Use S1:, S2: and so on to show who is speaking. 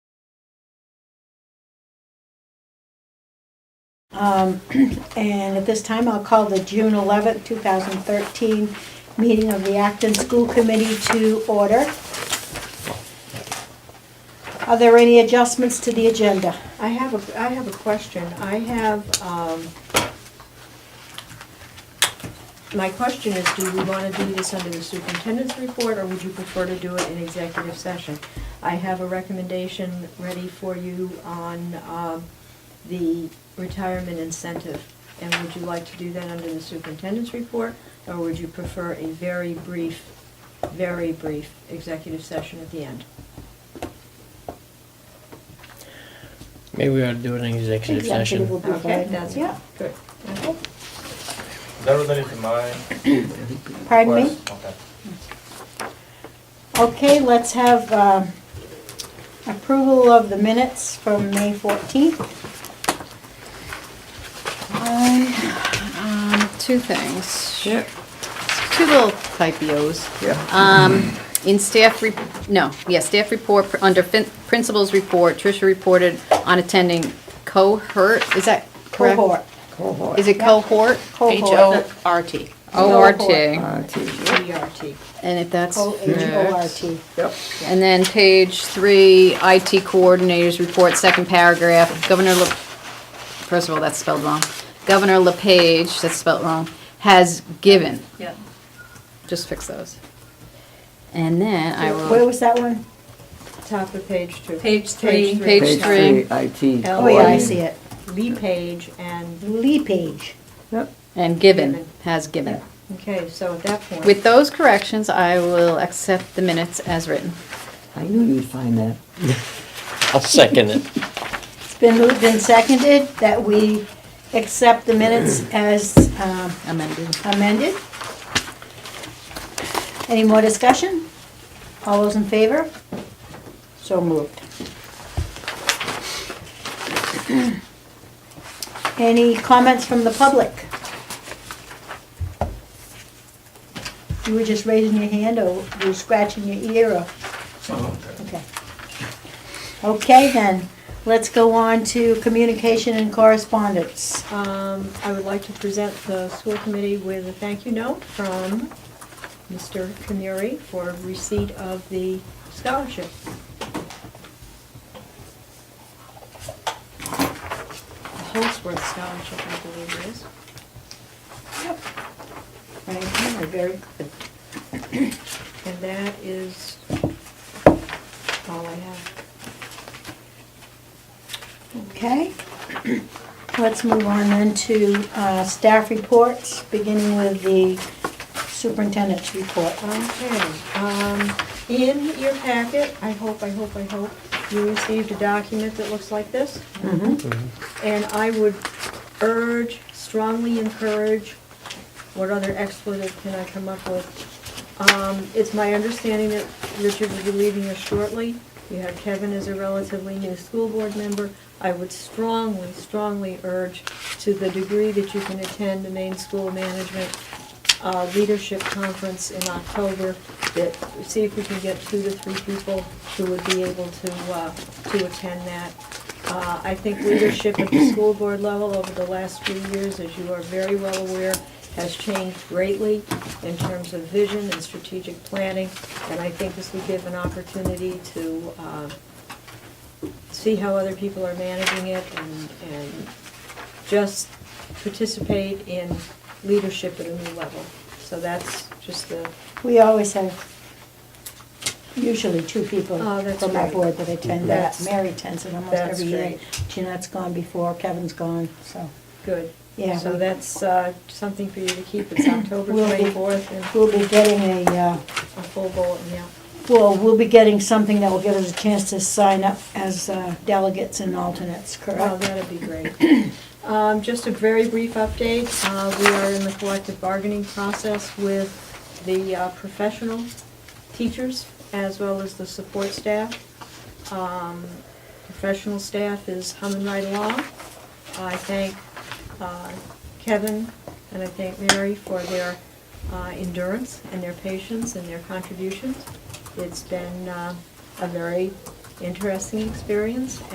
S1: Um, And at this time, I'll call the June 11, 2013 meeting of the Acton School Committee to order. Are there any adjustments to the agenda?
S2: I have a, I have a question. I have, um, my question is, do we want to do this under the superintendent's report, or would you prefer to do it in executive session? I have a recommendation ready for you on, um, the retirement incentive. And would you like to do that under the superintendent's report, or would you prefer a very brief, very brief executive session at the end?
S3: Maybe we ought to do it in executive
S1: Executive will
S3: session.
S1: be
S2: Okay,
S1: fine.
S2: that's,
S1: Yeah,
S2: good. Okay.
S4: That was related to my
S1: pardon me?
S4: request. Okay.
S1: Okay, let's have um, approval of the minutes from May 14th.
S5: I, um, two things. Two little typos. Um, in staff, re- no, yeah, staff report, pr- under fin- principal's report, Tricia reported on attending cohort, is that correct?
S1: Cohort.
S5: Is it cohort?
S1: Cohort.
S6: H-O-R-T.
S5: O-R-T.
S1: Cohort.
S5: And
S2: DRT.
S5: if that's.
S1: C-O-H-O-R-T.
S5: And then page three, IT coordinators report, second paragraph, Governor La, first of all, that's spelled wrong. Governor LePage, that's spelled wrong, has given.
S6: Yep.
S5: Just fix those. And then I
S1: Where
S5: will,
S1: was that one?
S2: Top of page two.
S6: Page three.
S5: page three,
S7: IT.
S2: L-
S1: Oh, yeah, I see it.
S2: Lee Page and,
S1: Lee Page.
S5: and given,
S2: Given.
S5: has given.
S2: okay, so at that point.
S5: With those corrections, I will accept the minutes as written.
S7: I knew you'd find that.
S3: I'll second it.
S1: It's been moved and seconded that we accept the minutes as um,
S5: Amended.
S1: amended. Any more discussion? All those in favor? So moved. Any comments from the public? You were just raising your hand or you were scratching your ear or? Okay. Okay then, let's go on to communication and correspondence.
S2: Um, I would like to present the school committee with a thank you note from Mr. Camuri for receipt of the scholarship. The Holsworth Scholarship, I believe it is.
S1: Right here, very good.
S2: And that is all I have.
S1: Okay, let's move on then to uh, staff reports, beginning with the superintendent's report.
S2: Okay, um, in your packet, I hope, I hope, I hope, you received a document that looks like this. And I would urge, strongly encourage, what other expletive can I come up with? Um, it's my understanding that Richard will be leaving us shortly. You have Kevin as a relatively new school board member. I would strongly, strongly urge, to the degree that you can attend the main school management uh, leadership conference in October, that, see if we can get two to three people who would be able to, uh, to attend that. Uh, I think leadership at the school board level over the last few years, as you are very well aware, has changed greatly in terms of vision and strategic planning, and I think this would give an opportunity to uh, see how other people are managing it and, and just participate in leadership at a new level. So that's just the,
S1: We always have usually two people
S2: Oh, that's
S1: from our
S2: right.
S1: board that attend that.
S2: That's-
S1: Mary attends it almost
S2: that's
S1: every year.
S2: great.
S1: Jeanette's gone before, Kevin's gone, so
S2: good.
S1: Yeah,
S2: So
S1: we-
S2: that's uh, something for you to keep. It's October
S1: We'll be-
S2: 24th and
S1: we'll be getting a, uh,
S2: a full bulletin, yeah.
S1: well, we'll be getting something that will give us a chance to sign up as uh, delegates and alternates,
S2: Oh,
S1: correct?
S2: that'd be great. Um, Just a very brief update. Uh, We are in the collective bargaining process with the uh, professional teachers as well as the support staff. Um, Professional staff is humming right along. I thank uh, Kevin and I thank Mary for their uh, endurance and their patience and their contributions. It's been uh, a very interesting experience